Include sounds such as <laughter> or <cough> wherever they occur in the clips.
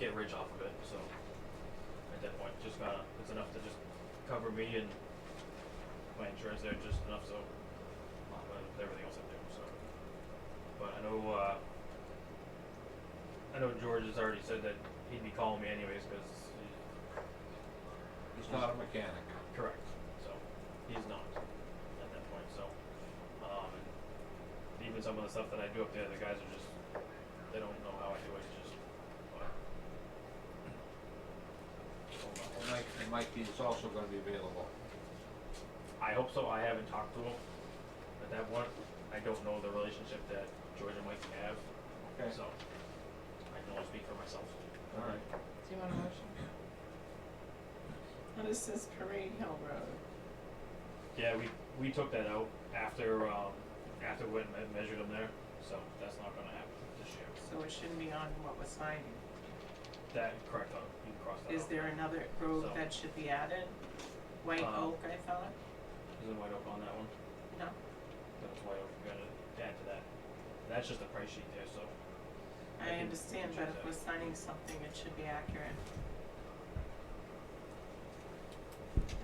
get rich off of it, so at that point, just gotta, it's enough to just cover me and my insurance there, just enough so, uh, with everything else I do, so. But I know, uh, I know George has already said that he'd be calling me anyways, cause He's not a mechanic. Correct. So he's not at that point. So um, and even some of the stuff that I do up there, the guys are just they don't know how I do it. It's just but, Hold on, And hold on. Mike, and Mike is also gonna be available. I hope so. I haven't talked to him at that point. I don't know the relationship that George and Mike have, Okay. so I can only speak for myself. All right. Do you want a motion? And this is Parade Hill Road. Yeah, we we took that out after um, after we me- measured them there, so that's not going to happen this year. So it shouldn't be on what was signed. That, correct, uh, you can cross that Is out. there another road So- that should be added? White Uh, Oak, I thought? Isn't White Oak on that one? No? That's White Oak, we gotta add to that. That's just a price sheet there, so, I I can understand, but check if that. we're signing something, it should be accurate.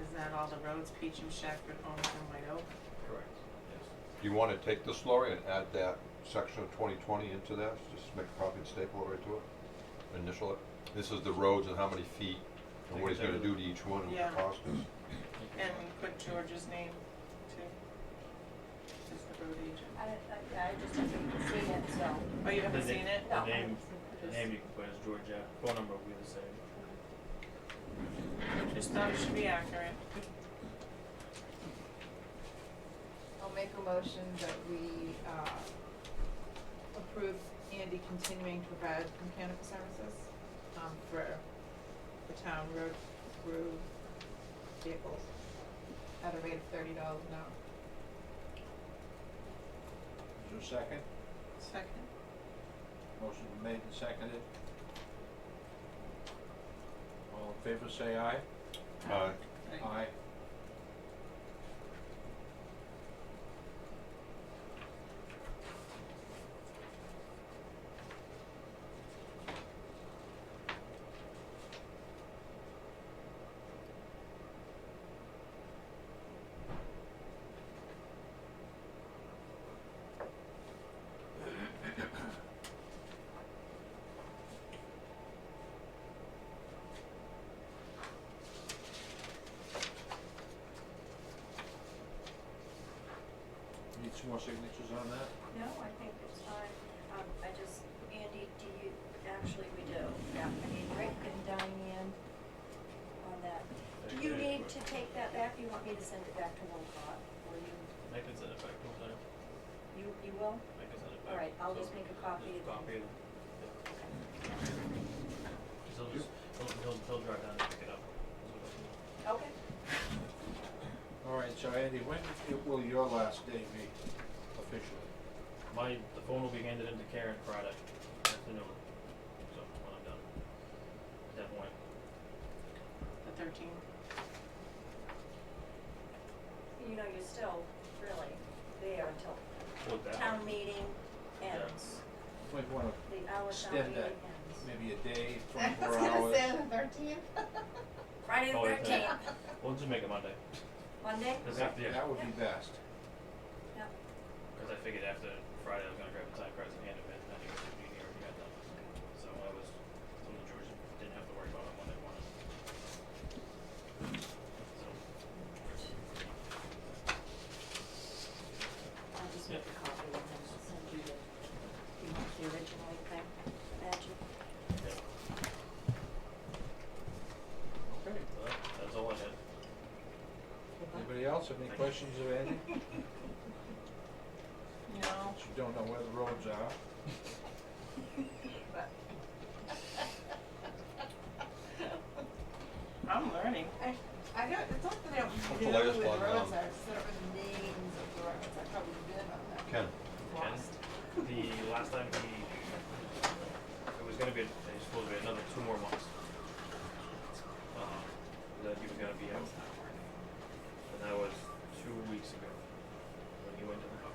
Is that all the roads, Peachum, Shackford, Holmes, and White Oak? correct, yes. Do you wanna take this, Lori, and add that section of twenty twenty into that, just make a copy and staple it right to it? Initial it, this is the roads and how many feet, and what he's gonna do to each one, and what Yeah. the cost is. And put George's name too. Is the road agent. I, I, I just haven't seen it, so. Oh, you haven't The na- seen it? No, I The name, haven't seen the it. name you can put is Georgia, phone number will be the same. Just thought it should be accurate. I'll make a motion that we, uh, approve Andy continuing to provide mechanical services, um, for the town road crew vehicles at a rate of thirty dollars an hour. Is there a second? Second. Motion made and seconded. All in favor, say aye. Uh, Right. Aye. Need some more signatures on that? No, I think it's fine. Um, I just, Andy, do you, actually, we do. Yeah, I need Rick and Diane on that. Do you Okay, need but- to take that back? You want me to send it back to Wilcott? Or you, I can send it back, don't I? I you, you will? can send it back. All right, I'll so just make a copy Just and- copy it. Yeah. He'll just, he'll, he'll, he'll drive down and pick it up. That's what I'll do. Okay. All right, so Andy, when i- will your last day be officially? My, the phone will be handed into Karen Friday afternoon, so when I'm done. At that point, The thirteenth. You know, you're still really there until with that. town meeting ends, Might wanna the hour town Extend meeting that. ends. maybe a day, <laughs> twenty-four hours. the thirteenth. Friday Oh, the okay. thirteenth, We'll just make it Monday, Monday? cause after, yeah, That would be best. Yeah. Because I figured after Friday, I was gonna grab the time cards and hand them in, and I knew the meeting already got done. So I was, told the George didn't have to worry about it when they wanted. So, I'll just make a copy and then I'll send you the, you want the original thing, magic? yeah, Okay. so that, that's all I had. Anybody else have any questions of Andy? No. You don't know where the roads are. <laughs> I'm learning. I, I don't, it's not that I don't What's the know where latest the one, roads um, are, it's that I don't know the names of the roads, I've probably been on that. Ken, Ken, the last time he, it was gonna be, it was supposed to be another two more months. Um, that he was gonna be out. And that was two weeks ago, when he went to the hospital.